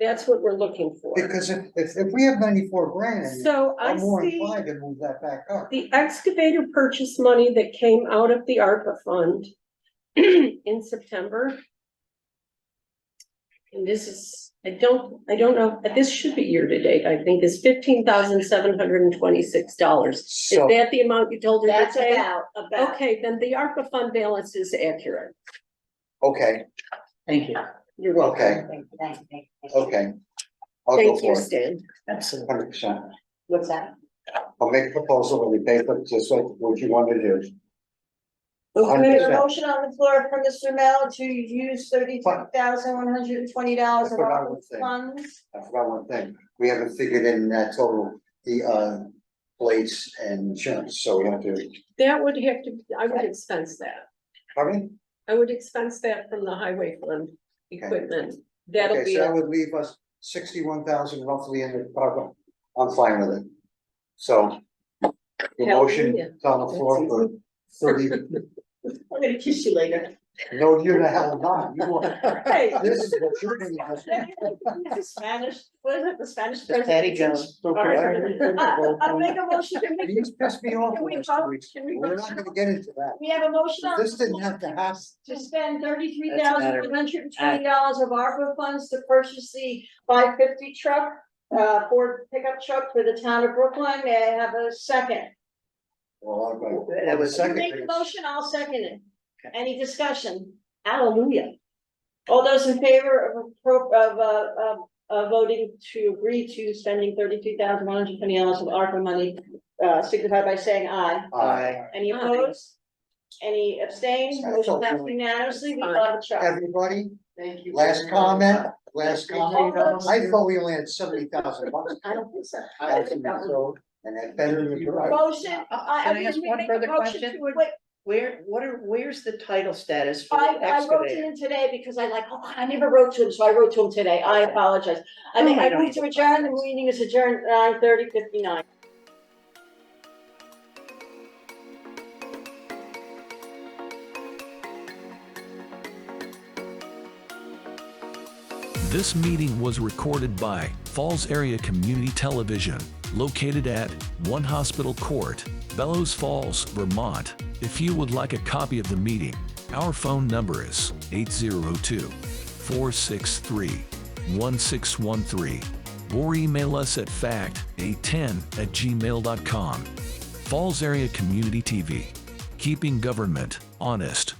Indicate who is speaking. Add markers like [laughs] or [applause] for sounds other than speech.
Speaker 1: That's what we're looking for.
Speaker 2: Because if, if, if we have ninety-four grand,
Speaker 1: So I
Speaker 2: I'm more
Speaker 1: see
Speaker 2: inclined to move that back up.
Speaker 1: the excavator purchase money that came out of the ARPA fund [clears throat] in September. And this is, I don't, I don't know, this should be year-to-date, I think, is fifteen thousand seven hundred and twenty-six dollars. Is
Speaker 2: So,
Speaker 1: that the amount you told her to
Speaker 3: That's
Speaker 1: pay?
Speaker 3: about, about.
Speaker 1: Okay, then the ARPA fund balance is accurate.
Speaker 2: okay,
Speaker 4: Thank you.
Speaker 1: You're welcome.
Speaker 2: okay,
Speaker 3: Thank you, thank you, thank you.
Speaker 2: okay. I'll go
Speaker 1: Thank you,
Speaker 2: for it,
Speaker 1: Stan.
Speaker 4: Absolutely.
Speaker 2: hundred percent.
Speaker 3: What's that?
Speaker 2: I'll make a proposal when we pay for, just like what you want to do.
Speaker 3: There's a
Speaker 2: Percent.
Speaker 3: motion on the floor from Mr. Mel to use thirty-two thousand one hundred and twenty dollars of
Speaker 2: That's what I
Speaker 3: ARPA
Speaker 2: would say.
Speaker 3: funds.
Speaker 2: I forgot one thing, we haven't figured in that total, the, uh, plates and insurance, so we have to,
Speaker 1: That would have to, I would expense that.
Speaker 2: pardon?
Speaker 1: I would expense that from the highway fund equipment. That'll
Speaker 2: Okay,
Speaker 1: be,
Speaker 2: so that
Speaker 1: it.
Speaker 2: would leave us sixty-one thousand roughly in the pocket, I'm fine with it. So, the motion
Speaker 1: Hallelujah.
Speaker 2: is on the floor for thirty,
Speaker 3: I'm gonna kiss you [laughs] later.
Speaker 2: no, you're the hell not, you want,
Speaker 3: Hey.
Speaker 2: this is what you're gonna just.
Speaker 3: The Spanish, what is it, the Spanish?
Speaker 4: Patty Jones.
Speaker 3: [laughs] I, I make a motion to make,
Speaker 2: These pissed me off
Speaker 3: Can we
Speaker 2: the last
Speaker 3: vote?
Speaker 2: two weeks,
Speaker 3: Can we
Speaker 2: we're
Speaker 3: vote?
Speaker 2: not gonna get into that,
Speaker 3: we have a motion on.
Speaker 2: this didn't have to happen.
Speaker 3: to spend thirty-three
Speaker 4: That's
Speaker 3: thousand
Speaker 4: better.
Speaker 3: one hundred and twenty dollars of ARPA funds to purchase the five fifty truck, uh, Ford pickup truck for the town of Brooklyn. May I have a second?
Speaker 2: Well, I'm gonna.
Speaker 4: That was-
Speaker 2: Second,
Speaker 3: Make the
Speaker 2: it's-
Speaker 3: motion, I'll second it. Any discussion? Hallelujah. All those in favor of, appro- of, uh, of, uh, voting to agree to spending thirty-two thousand one hundred twenty dollars of ARPA money, uh, signify by saying aye.
Speaker 2: Aye.
Speaker 3: Any
Speaker 1: Aye.
Speaker 3: opposed? Any abstained?
Speaker 2: That's all
Speaker 3: Motion passed
Speaker 2: really-
Speaker 3: unanimously. We
Speaker 1: Aye.
Speaker 3: love a truck.
Speaker 2: Everybody,
Speaker 4: Thank you.
Speaker 2: last comment, last comment, I
Speaker 4: I
Speaker 2: thought we only had seventy thousand bucks.
Speaker 3: I don't think so.
Speaker 2: And that better than your.
Speaker 3: Motion, I, I
Speaker 4: Can I
Speaker 3: mean,
Speaker 4: ask
Speaker 3: we
Speaker 4: one
Speaker 3: make a
Speaker 4: further
Speaker 3: motion
Speaker 4: question?
Speaker 3: to, wait,
Speaker 4: Where, what are, where's the title status for
Speaker 3: I,
Speaker 4: the
Speaker 3: I wrote to
Speaker 4: excavator?
Speaker 3: him today because I like, oh, I never wrote to him, so I wrote to him today. I apologize. I
Speaker 4: No,
Speaker 3: mean,
Speaker 4: I
Speaker 3: I
Speaker 4: don't
Speaker 3: need to
Speaker 4: need to
Speaker 3: adjourn, the meeting is adjourned at nine thirty fifty-nine.
Speaker 5: This meeting was recorded by Falls Area Community Television, located at One Hospital Court, Bellows Falls, Vermont. If you would like a copy of the meeting, our phone number is 802 463 1613 or email us at fact810 at gmail.com. Falls Area Community TV, keeping government honest.